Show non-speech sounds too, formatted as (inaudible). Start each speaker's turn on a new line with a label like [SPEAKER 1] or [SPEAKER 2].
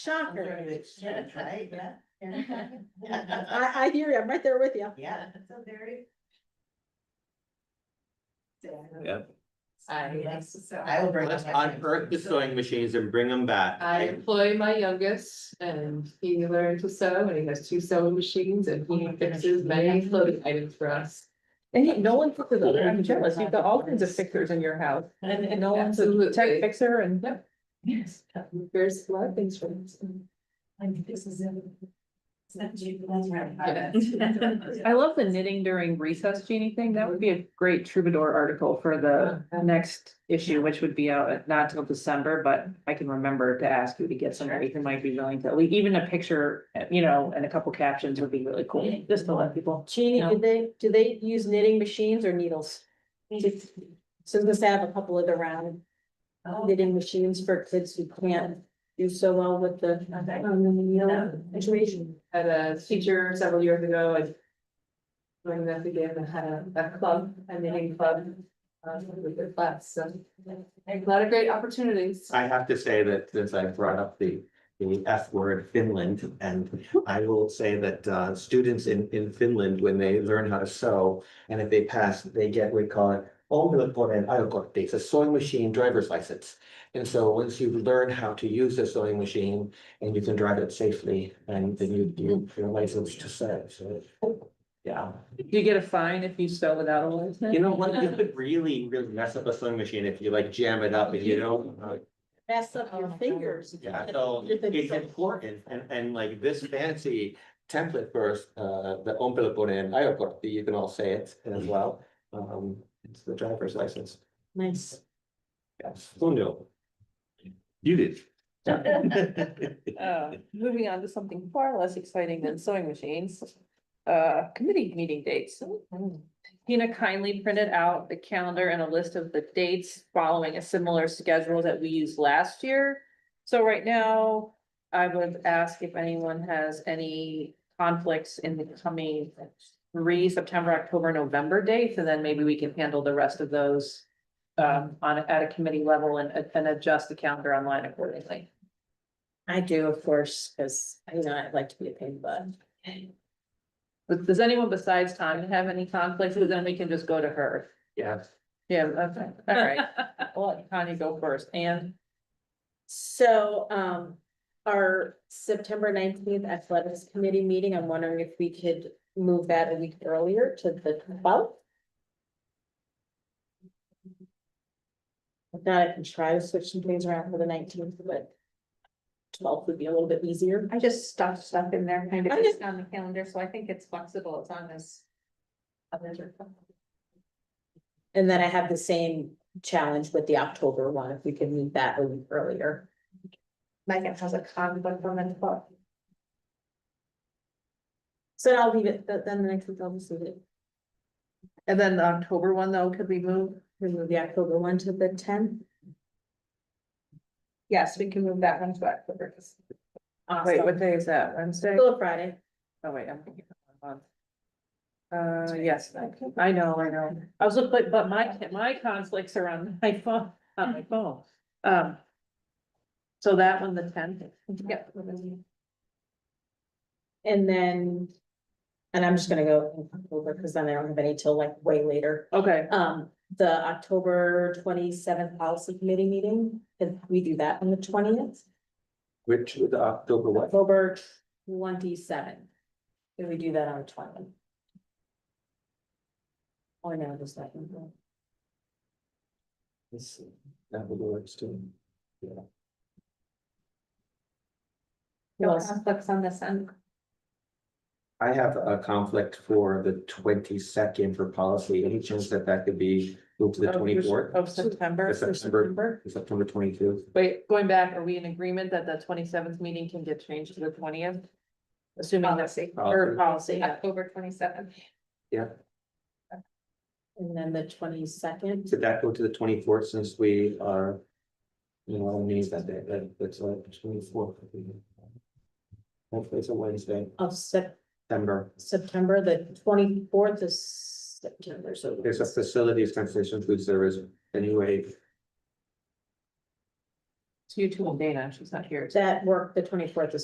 [SPEAKER 1] Shocker.
[SPEAKER 2] That's right, yeah.
[SPEAKER 1] I, I hear you. I'm right there with you.
[SPEAKER 2] Yeah. It's a very.
[SPEAKER 3] Yep.
[SPEAKER 2] I, I
[SPEAKER 4] I,
[SPEAKER 2] will bring.
[SPEAKER 3] Let's
[SPEAKER 2] up my-
[SPEAKER 3] unearth the sewing machines and bring them back.
[SPEAKER 4] I employ my youngest and he learned to sew and he has two sewing machines and he fixes
[SPEAKER 2] (laughs)
[SPEAKER 4] many clothing items for us.
[SPEAKER 5] And yet no one fixes other, I'm jealous, you've got all kinds of fixers in your house, and, and no one's a
[SPEAKER 4] Absolutely.
[SPEAKER 5] tech fixer and.
[SPEAKER 4] Yep. Yes. There's a lot of things for us.
[SPEAKER 5] (laughs) I love the knitting during recess, Jeannie thing, that would be a great troubadour article for
[SPEAKER 4] Um,
[SPEAKER 5] the next issue, which would be out at- not till December, but I can remember to ask you to get somebody who might be willing to, like, even a picture, you know, and a couple captions would be really cool, just to let people.
[SPEAKER 1] Jeannie, do they, do they use knitting machines or needles?
[SPEAKER 2] (laughs)
[SPEAKER 1] So just have a couple of the round
[SPEAKER 2] Oh,
[SPEAKER 1] knitting machines for kids who can't do so well with the.
[SPEAKER 2] Okay.
[SPEAKER 1] um, the needle Situation.
[SPEAKER 4] Had a teacher several years ago, I. Doing that again, I had a, a club, a knitting club, um, with the class, so. A lot of great opportunities.
[SPEAKER 3] I have to say that since I brought up the, the F word Finland, and I will say that, uh, students in, in Finland, when they learn how to sew. And if they pass, they get, we call it, omniponen ajokortti, it's a sewing machine driver's license. And so once you learn how to use the sewing machine and you can drive it safely, and then you, you, your license to sew, so. Yeah,
[SPEAKER 5] Do you get a fine if you sew without a license?
[SPEAKER 3] you know, what? you could really, really mess up a sewing machine if you like jam it up and you don't, uh,
[SPEAKER 1] Mess up your fingers.
[SPEAKER 3] yeah, so
[SPEAKER 1] If it's
[SPEAKER 3] it's
[SPEAKER 1] so-
[SPEAKER 3] important and, and like this fancy template first, uh, the ompelponen airport, you can all say it as well. Um, it's the driver's license.
[SPEAKER 1] Nice.
[SPEAKER 3] Yes, who knew?
[SPEAKER 6] You did.
[SPEAKER 5] Uh, moving on to something far less exciting than sewing machines, uh, committee meeting dates. Tina kindly printed out the calendar and a list of the dates following a similar schedule that we used last year. So right now, I would ask if anyone has any conflicts in the coming three September, October, November dates, and then maybe we can handle the rest of those um, on, at a committee level and, and adjust the calendar online accordingly.
[SPEAKER 1] I do, of course, because I know I'd like to be a pain in the butt.
[SPEAKER 5] But does anyone besides Tanya have any conflicts? Well, Then we can just go to her.
[SPEAKER 3] Yes.
[SPEAKER 5] Yeah, okay, all (laughs) right. I'll let Tanya go first. And
[SPEAKER 1] So, um, our September nineteenth athletics committee meeting, I'm wondering if we could move that a week earlier to the twelfth. If not, I can try to switch some things around for the nineteenth, but twelfth would be a little bit easier.
[SPEAKER 4] I just stuffed stuff in there, kind
[SPEAKER 1] of
[SPEAKER 4] just on the calendar, so I think it's flexible, it's on this.
[SPEAKER 1] And then I have the same challenge with the October one, if we can move that a week earlier.
[SPEAKER 4] Megan has a conflict on the twelfth.
[SPEAKER 1] So I'll leave it, th- then the next week I'll just leave it.
[SPEAKER 5] then the October one though, could we move?
[SPEAKER 1] Remove the October one to the tenth.
[SPEAKER 4] Yes, we can move that one to October.
[SPEAKER 5] Wait, what day is that? Wednesday?
[SPEAKER 1] Still a Friday.
[SPEAKER 5] Oh, wait, I'm thinking of one month. Uh, yes, I can- I know, I know. I was looking, but my, my conflicts are on my phone, on my phone. Um. So that one, the tenth. Yep.
[SPEAKER 1] And then, and I'm just gonna go in October, because then I don't have any till like way later.
[SPEAKER 5] Okay,
[SPEAKER 1] Um, the October twenty-seventh policy committee meeting, if we do that on the twentieth,
[SPEAKER 3] Which with October what?
[SPEAKER 1] October twenty-seventh. If we do that on the twentieth. Or no, just like.
[SPEAKER 3] Let's see. That would work too.
[SPEAKER 4] Conflicts on this end.
[SPEAKER 3] I have a conflict for the twenty second for policy. Any chance that that could be moved to the
[SPEAKER 5] Of-
[SPEAKER 3] twenty fourth?
[SPEAKER 5] Oh, of September.
[SPEAKER 3] September, September twenty two.
[SPEAKER 5] Wait, going back, are we in agreement that the twenty seventh meeting can get changed to the twentieth? Assuming that's
[SPEAKER 4] Policy.
[SPEAKER 3] Policy.
[SPEAKER 5] or policy, yeah.
[SPEAKER 4] October twenty seventh.
[SPEAKER 3] Yeah.
[SPEAKER 1] And then the twenty-second,
[SPEAKER 3] Did that go to the twenty fourth since we are? You know, on knees that day, uh, that, that's like twenty fourth. Hopefully it's a Wednesday,
[SPEAKER 1] of Sep-
[SPEAKER 3] September.
[SPEAKER 1] September, the twenty-fourth is September, so.
[SPEAKER 3] There's a facilities transition food service anyway.
[SPEAKER 5] you two and Dana, she's not here.
[SPEAKER 1] that worked the twenty-fourth is